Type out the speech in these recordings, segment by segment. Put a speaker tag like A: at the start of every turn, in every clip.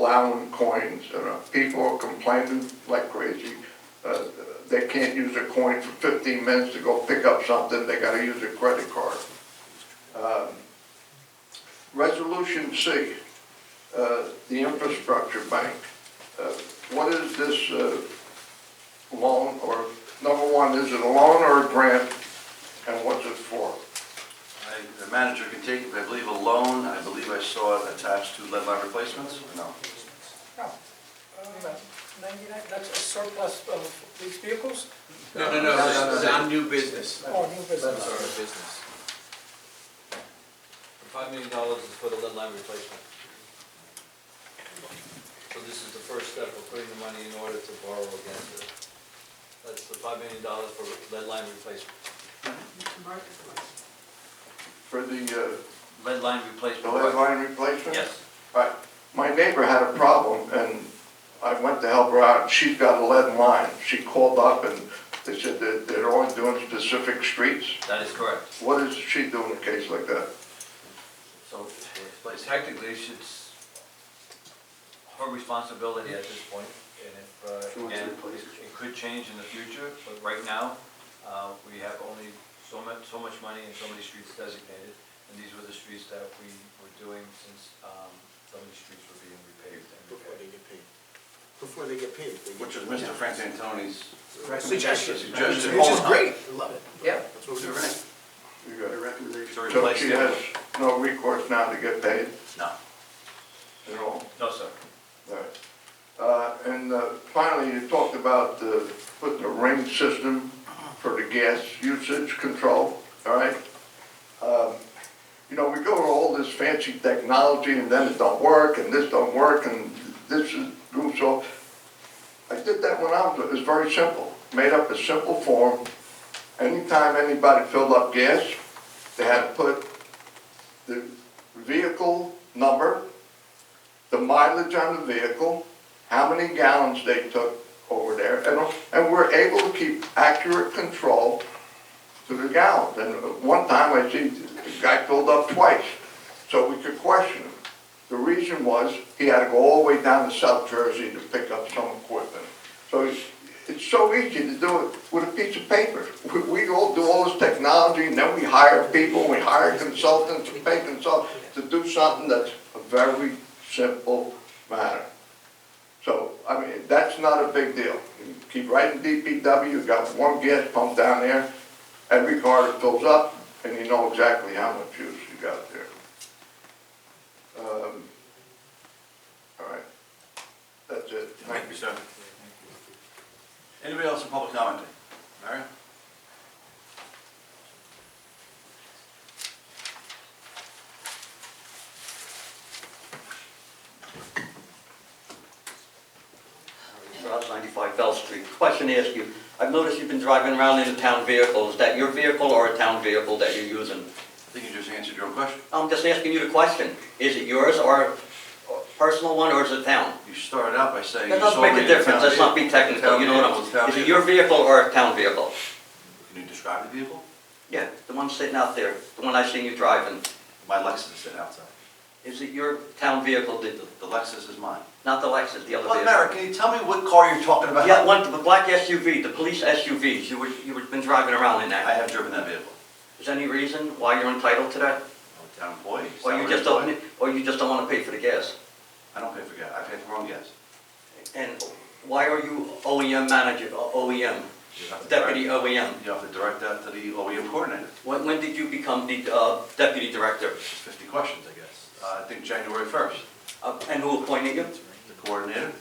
A: allowing coins, and uh, people are complaining like crazy. Uh, They can't use a coin for fifteen minutes to go pick up something, they gotta use a credit card. Um, Resolution C, uh, the infrastructure bank. Uh, What is this uh, loan, or, number one, is it a loan or a grant, and what's it for?
B: I- The manager can take, I believe, a loan, I believe I saw it attached to lead line replacements, or no?
C: No, um, 99, that's a surplus of these vehicles
D: No, no, no, that's on new business.
C: or new
E: That's our
C: business?
E: business. Five million dollars is for the lead line replacement. So this is the first step of putting the money in order to borrow against it. That's the five million dollars for lead line replacement.
A: For the, uh,
E: Lead line
A: the
E: replacement.
A: lead line replacement?
E: Yes.
A: Right. My neighbor had a problem, and I went to help her out, and she's got a lead line. She called up, and they said that they're only doing specific streets.
E: That is correct.
A: What is she doing in a case like that?
E: So, but technically, it's her responsibility at this point, and if,
B: She
E: uh,
B: wants to
E: and
B: replace it.
E: it could change in the future, but right now, uh, we have only so much, so much money and so many streets designated, and these were the streets that we were doing since um, some of these streets were being repaved and
F: Before they
E: repaired.
F: get paid. Before they get paid. they get-
B: Which is Mr. Frank Antoni's
C: Suggestion.
B: suggestion.
C: Which is great.
F: I love it.
C: Yeah.
F: That's what we do.
A: You got it.
B: recommendation.
A: So she has no recourse now to get paid
E: No,
A: at all?
E: no, sir.
A: All right. Uh, And uh, finally, you talked about uh, putting a ring system for the gas usage control, all right? Um, You know, we go to all this fancy technology, and then it don't work, and this don't work, and this is, so I did that when I was, it's very simple, made up a simple form. Anytime anybody filled up gas, they had to put the vehicle number, the mileage on the vehicle, how many gallons they took over there, and, and we're able to keep accurate control to the gallons. And one time I see the guy filled up twice, so we could question him. The reason was, he had to go all the way down to South Jersey to pick up some equipment. So it's, it's so easy to do it with a piece of paper. We, we all do all this technology, and then we hire people, we hire consultants, we pay consultants to do something that's a very simple matter. So, I mean, that's not a big deal. You Keep writing DPW, you got one gas pump down there, every car that fills up, and you know exactly how much use you got there. Um, All right, that's it.
B: Thank you, sir. Anybody else in public comment? Mary?
G: Route 95 Bell Street. Question to ask you, I've noticed you've been driving around in a town vehicle. Is that your vehicle or a town vehicle that you're using?
B: I think you just answered your own question.
G: I'm just asking you the question. Is it yours or a personal one or is it town?
B: You started out by saying.
G: That
B: you saw
G: doesn't
B: me
G: make a
B: in the
G: difference.
B: town
G: Let's not be
B: vehicle.
G: technical, you know
B: Town
G: what
B: vehicle, town
G: I'm... Is it
B: vehicle.
G: your vehicle or a town vehicle?
B: Can you describe the vehicle?
G: Yeah, the one sitting out there, the one I seen you driving.
B: My Lexus is sitting outside.
G: Is it your town vehicle, the- the-
B: The Lexus is mine.
G: not the Lexus, the other
B: Well,
G: vehicle?
B: Mary, can you tell me what car you're talking about?
G: Yeah, one, the black SUV, the police SUVs. You were, you were been driving around in
B: I
G: that.
B: have driven that vehicle.
G: Is there any reason why you're entitled to that?
B: I'm a town employee.
G: Or you
B: salaried
G: just
B: employee.
G: don't, or you just don't want to pay for the gas?
B: I don't pay for gas, I pay for my own gas.
G: And why are you OEM manager, OEM,
B: You have to
G: deputy
B: direct-
G: OEM?
B: You have to direct that to the OEM coordinator,
G: When, when did you become the uh, deputy director?
B: It's fifty questions, I guess. Uh, I think January first,
G: Uh, And who appointed you?
B: the coordinator,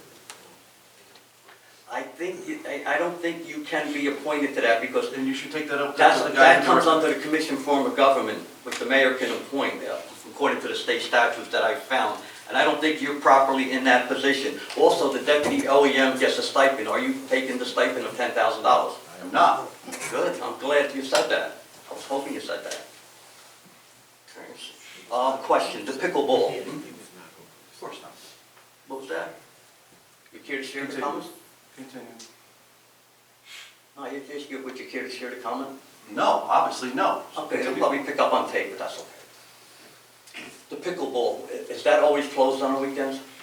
G: I think, you- I, I don't think you can be appointed to that because
B: and you should take that up. to
G: that's,
B: the guy
G: that
B: who
G: comes
B: directed-
G: under the commission form of government, which the mayor can appoint, uh, according to the state statutes that I found. And I don't think you're properly in that position. Also, the deputy OEM gets a stipend. Are you taking the stipend of ten thousand dollars?
B: I am not.
G: Good, I'm glad you said that. I was hoping you said that. Uh, question, the pickleball.
F: He was not going.
B: Of course not.
G: What was that? You care to share the
B: Continue.
G: comment?
B: Continue.
G: No, you just, you- would you care to share the comment?
B: No, obviously, no.
G: Okay, it'll
B: Continue.
G: probably pick up on tape, but that's okay. The pickleball, i- is that always closed on the weekends?